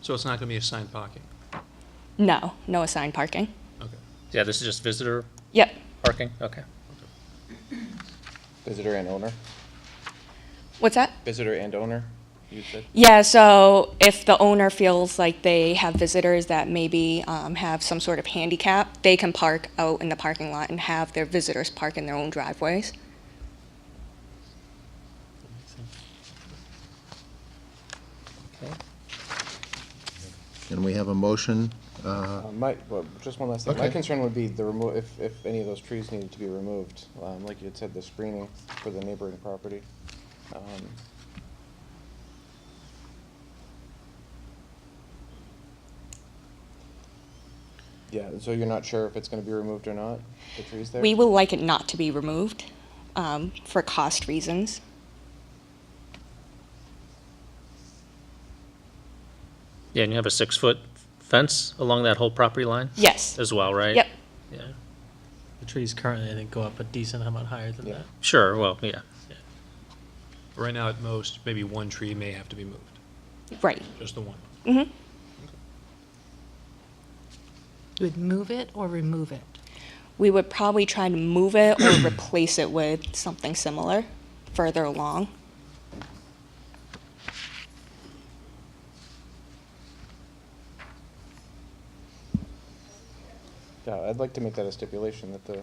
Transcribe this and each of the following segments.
So it's not going to be assigned parking? No, no assigned parking. Okay. Yeah, this is just visitor Yep. parking, okay. Visitor and owner? What's that? Visitor and owner, you said? Yeah, so if the owner feels like they have visitors that maybe um, have some sort of handicap, they can park out in the parking lot and have their visitors park in their own driveways. Okay. And we have a motion, uh, Uh, My, well, just one last thing. My Okay. concern would be the remo, if, if any of those trees needed to be removed, um, like you had said, the screening for the neighboring property. Um, Yeah, so you're not sure if it's gonna be removed or not, the trees there? We will like it not to be removed um, for cost reasons. Yeah, and you have a six-foot fence along that whole property line Yes. as well, right? Yep. Yeah, The trees currently, I think, go up a decent amount higher than Yeah. that. sure, well, yeah. Right now, at most, maybe one tree may have to be moved, Right. just the one. hmm You would move it or remove it? We would probably try to move it or replace it with something similar further along. Yeah, I'd like to make that a stipulation that the,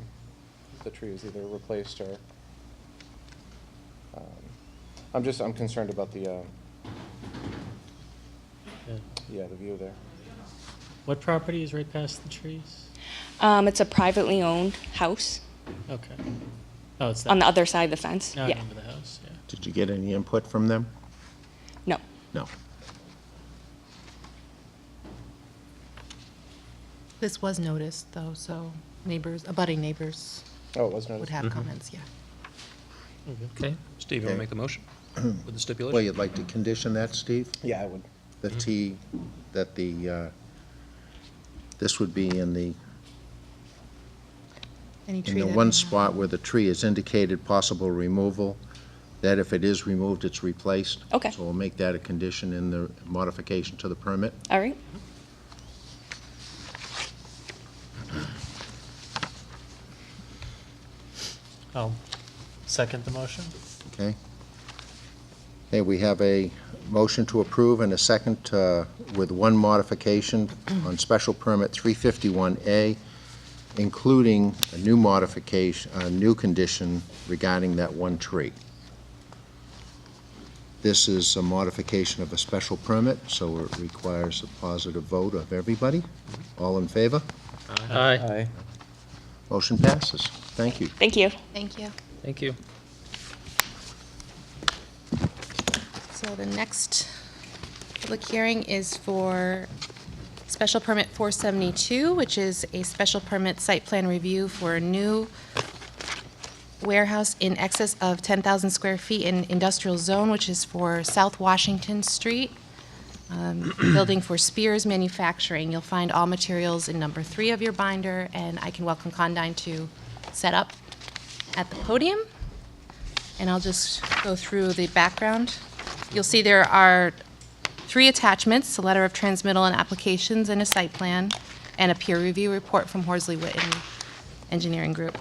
the tree is either replaced or, um, I'm just, I'm concerned about the, uh, Yeah. yeah, the view there. What property is right past the trees? Um, it's a privately owned house Okay. Oh, it's that. on the other side of the fence. Now I yeah. remember the house, yeah. did you get any input from them? No. No. This was noticed, though, so neighbors, abutting neighbors Oh, it was noticed. would Mm-hmm. have comments, yeah. Okay, Steve, you want Okay. to make the motion with the stipulation? Well, you'd like to condition that, Steve? Yeah, I would. That he, that the, uh, this would be in the, Any in tree the that one we have. spot where the tree is indicated possible removal, that if it is removed, it's replaced. Okay. So we'll make that a condition in the modification to the permit. All right. I'll second the motion. Okay. Okay, we have a motion to approve and a second uh, with one modification on special permit 351A, including a new modification, a new condition regarding that one tree. This is a modification of a special permit, so it requires a positive vote of everybody. All in favor? aye, Aye. Motion passes. Thank you. Thank you. Thank you. thank you. So the next public hearing is for special permit 472, which is a special permit site plan review for a new warehouse in excess of 10,000 square feet in industrial zone, which is for South Washington Street, um, building for Spears Manufacturing. You'll find all materials in number three of your binder, and I can welcome Condyne to set up at the podium. And I'll just go through the background. You'll see there are three attachments, a letter of transmittal and applications and a site plan, and a peer review report from Horsley Witten Engineering Group.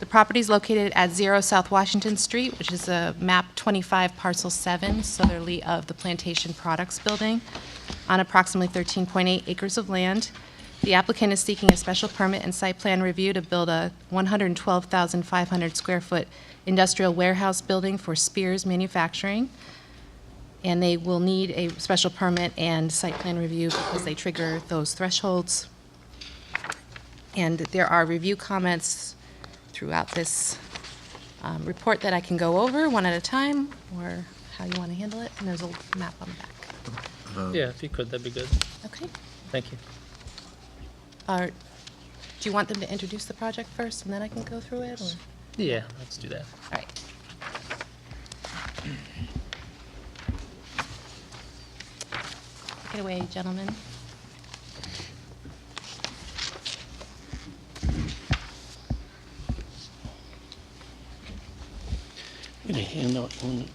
The property is located at Zero South Washington Street, which is a map 25 parcel 7 southerly of the Plantation Products Building, on approximately 13.8 acres of land. The applicant is seeking a special permit and site plan review to build a 112,500 square foot industrial warehouse building for Spears Manufacturing. And they will need a special permit and site plan review because they trigger those thresholds. And there are review comments throughout this um, report that I can go over one at a time, or how you want to handle it, and there's a map on the back. Yeah, if you could, that'd be good, Okay? thank you. Are, do you want them to introduce the project first, and then I can go through it, or? Yeah, let's do that. All right. Get away, gentlemen. Get a handout on it.